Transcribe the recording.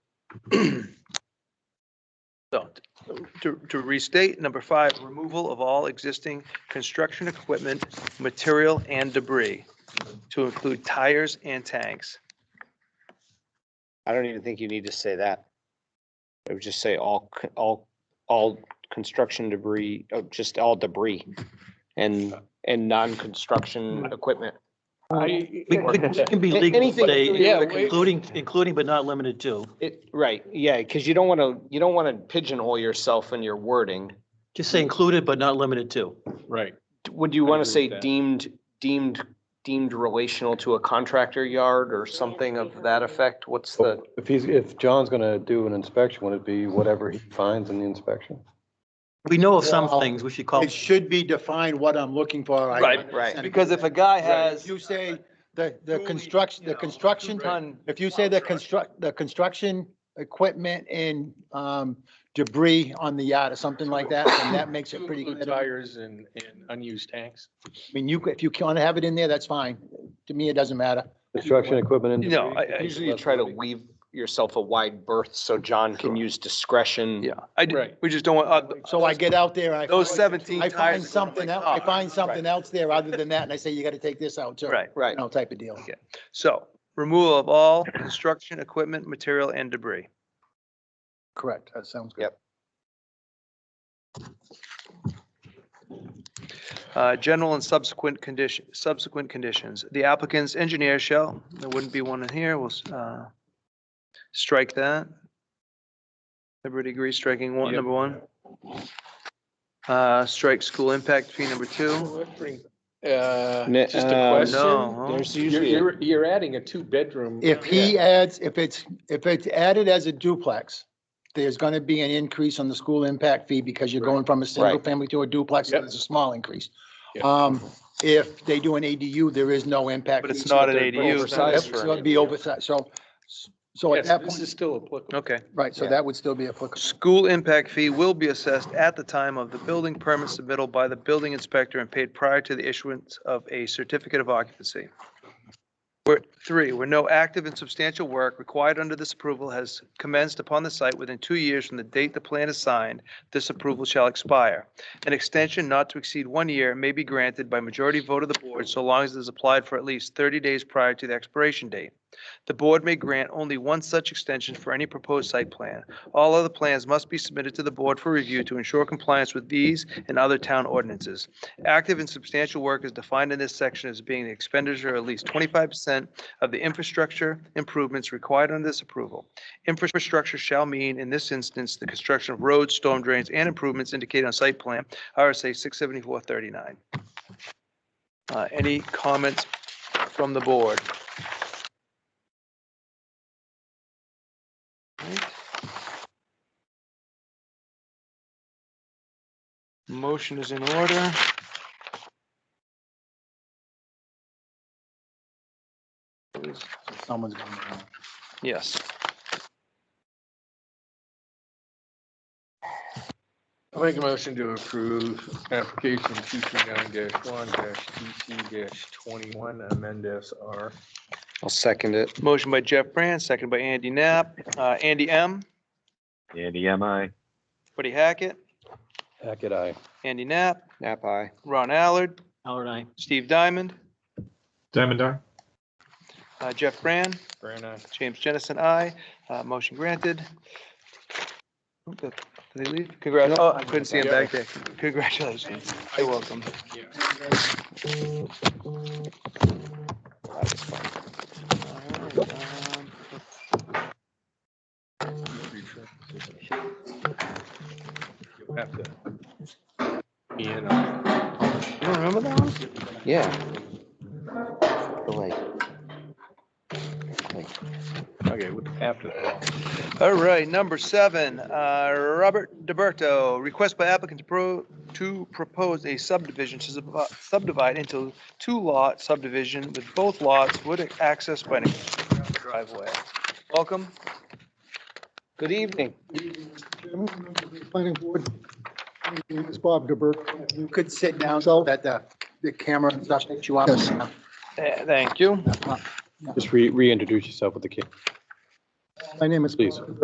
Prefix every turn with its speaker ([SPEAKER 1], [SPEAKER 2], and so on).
[SPEAKER 1] So to, to restate, number five, removal of all existing construction equipment, material and debris to include tires and tanks.
[SPEAKER 2] I don't even think you need to say that. It would just say all, c- all, all construction debris, oh, just all debris and, and non-construction equipment.
[SPEAKER 3] I,
[SPEAKER 4] We- we- It can be
[SPEAKER 2] A-
[SPEAKER 4] legal,
[SPEAKER 2] anything,
[SPEAKER 4] say,
[SPEAKER 2] yeah, we-
[SPEAKER 4] including, including but not limited to.
[SPEAKER 2] It, right, yeah, because you don't want to, you don't want to pigeonhole yourself in your wording.
[SPEAKER 4] Just say included but not limited to.
[SPEAKER 3] right,
[SPEAKER 2] Would you
[SPEAKER 3] I
[SPEAKER 2] want to
[SPEAKER 3] agree
[SPEAKER 2] say
[SPEAKER 3] with that.
[SPEAKER 2] deemed, deemed, deemed relational to a contractor yard or something of that effect? What's the,
[SPEAKER 5] Oh, If he's, if John's gonna do an inspection, would it be whatever he finds in the inspection?
[SPEAKER 4] We know of some
[SPEAKER 6] Well,
[SPEAKER 4] things we should call,
[SPEAKER 6] It should be defined what I'm looking for. I
[SPEAKER 1] Right,
[SPEAKER 2] right.
[SPEAKER 6] 100%
[SPEAKER 1] Because if a guy
[SPEAKER 6] If
[SPEAKER 1] has,
[SPEAKER 6] you say the, the construction, the construction
[SPEAKER 1] ton,
[SPEAKER 6] If you say the construct, the construction equipment and um, debris on the yacht or something like that, then that makes it pretty
[SPEAKER 3] include
[SPEAKER 6] clear. I
[SPEAKER 3] tires and, and unused tanks.
[SPEAKER 6] mean, you, if you can't have it in there, that's fine. To me, it doesn't matter.
[SPEAKER 5] Construction equipment and.
[SPEAKER 1] No,
[SPEAKER 5] debris?
[SPEAKER 1] I- I-
[SPEAKER 2] usually you try to leave yourself a wide berth so John can use discretion.
[SPEAKER 1] yeah, I, d-
[SPEAKER 3] Right.
[SPEAKER 1] we just don't want, uh,
[SPEAKER 6] So I get out there and I.
[SPEAKER 1] those
[SPEAKER 6] find-
[SPEAKER 1] seventeen
[SPEAKER 6] I
[SPEAKER 1] tires.
[SPEAKER 6] find
[SPEAKER 1] are going
[SPEAKER 6] something
[SPEAKER 1] like
[SPEAKER 6] else, I
[SPEAKER 1] cars.
[SPEAKER 6] find something else there other than that, and I say, you gotta take this out too.
[SPEAKER 1] Right,
[SPEAKER 2] Right.
[SPEAKER 6] You know, type of deal.
[SPEAKER 1] so removal of all construction equipment, material and debris.
[SPEAKER 6] Correct, that sounds good.
[SPEAKER 2] Yep.
[SPEAKER 1] Uh, General and subsequent condition, subsequent conditions. The applicant's engineer shall, there wouldn't be one in here, we'll uh, strike that. Everybody agrees striking one,
[SPEAKER 3] Yep.
[SPEAKER 1] number one? Uh, Strike school impact fee number two.
[SPEAKER 3] Uh,
[SPEAKER 2] Ne-
[SPEAKER 3] just
[SPEAKER 2] uh,
[SPEAKER 3] a question.
[SPEAKER 1] No.
[SPEAKER 2] There's
[SPEAKER 3] You're,
[SPEAKER 2] usually, a-
[SPEAKER 3] you're, you're adding a two-bedroom.
[SPEAKER 6] If he adds, if it's, if it's added as a duplex, there's gonna be an increase on the school impact fee because you're going from a single
[SPEAKER 2] Right.
[SPEAKER 6] family to a duplex, so
[SPEAKER 3] Yep.
[SPEAKER 6] there's a small increase.
[SPEAKER 3] Yeah.
[SPEAKER 6] Um, if they do an ADU, there is no impact.
[SPEAKER 1] But it's
[SPEAKER 6] fee,
[SPEAKER 1] not
[SPEAKER 6] so
[SPEAKER 1] an
[SPEAKER 6] they're
[SPEAKER 1] ADU.
[SPEAKER 6] Yep,
[SPEAKER 2] Oversized for
[SPEAKER 6] so
[SPEAKER 2] an
[SPEAKER 6] It'd be oversized, so, so at
[SPEAKER 3] Yes,
[SPEAKER 6] that
[SPEAKER 3] this
[SPEAKER 6] point,
[SPEAKER 3] is still applicable.
[SPEAKER 1] Okay.
[SPEAKER 6] right, so
[SPEAKER 2] yeah.
[SPEAKER 6] that would still be applicable.
[SPEAKER 1] School impact fee will be assessed at the time of the building permit submittal by the building inspector and paid prior to the issuance of a certificate of occupancy. Where, three, where no active and substantial work required under this approval has commenced upon the site within two years from the date the plan is signed, this approval shall expire. An extension not to exceed one year may be granted by majority vote of the board so long as it is applied for at least thirty days prior to the expiration date. The board may grant only one such extension for any proposed site plan. All other plans must be submitted to the board for review to ensure compliance with these and other town ordinances. Active and substantial work is defined in this section as being the expenditure of at least twenty-five percent of the infrastructure improvements required under this approval. Infrastructure shall mean, in this instance, the construction of roads, storm drains, and improvements indicated on site plan, RSA six seventy-four thirty-nine. Uh, any comments from the board? Motion is in order.
[SPEAKER 6] Someone's gonna-
[SPEAKER 1] Yes.
[SPEAKER 3] I'll make a motion to approve application two three nine one DC twenty-one, amend SR.
[SPEAKER 2] I'll second it.
[SPEAKER 1] Motion by Jeff Brand, second by Andy Knapp. Uh, Andy M,
[SPEAKER 7] Andy, am I?
[SPEAKER 1] Buddy Hackett,
[SPEAKER 5] Heck, it, I.
[SPEAKER 1] Andy Knapp,
[SPEAKER 2] Nap aye.
[SPEAKER 1] Ron Allard,
[SPEAKER 4] Howard and I.
[SPEAKER 1] Steve Diamond,
[SPEAKER 8] Diamond Eye?
[SPEAKER 1] uh, Jeff Brand,
[SPEAKER 3] Brown eye.
[SPEAKER 1] James Jennison, aye. Uh, Motion granted. Oop, Did they leave? Congrats. Oh, I couldn't see him back there. Congratulations. You're welcome.
[SPEAKER 3] You'll have to be in on it.
[SPEAKER 1] You don't remember that one?
[SPEAKER 2] Yeah. But like,
[SPEAKER 3] Okay, with- after that.
[SPEAKER 1] All right, number seven, uh, Robert DeBerto, request by applicant to pro, to propose a subdivision to sub- uh, subdivide into two lot subdivision with both lots would access by an driveway. Welcome.
[SPEAKER 2] Good evening.
[SPEAKER 9] Planning board. My name is Bob DeBerk.
[SPEAKER 6] You could sit down so that the, the camera and stuff that you want.
[SPEAKER 1] Eh, Thank you.
[SPEAKER 5] Just re, reintroduce yourself with the kid.
[SPEAKER 9] My name is.
[SPEAKER 5] Please.
[SPEAKER 9] Bob DeBerk.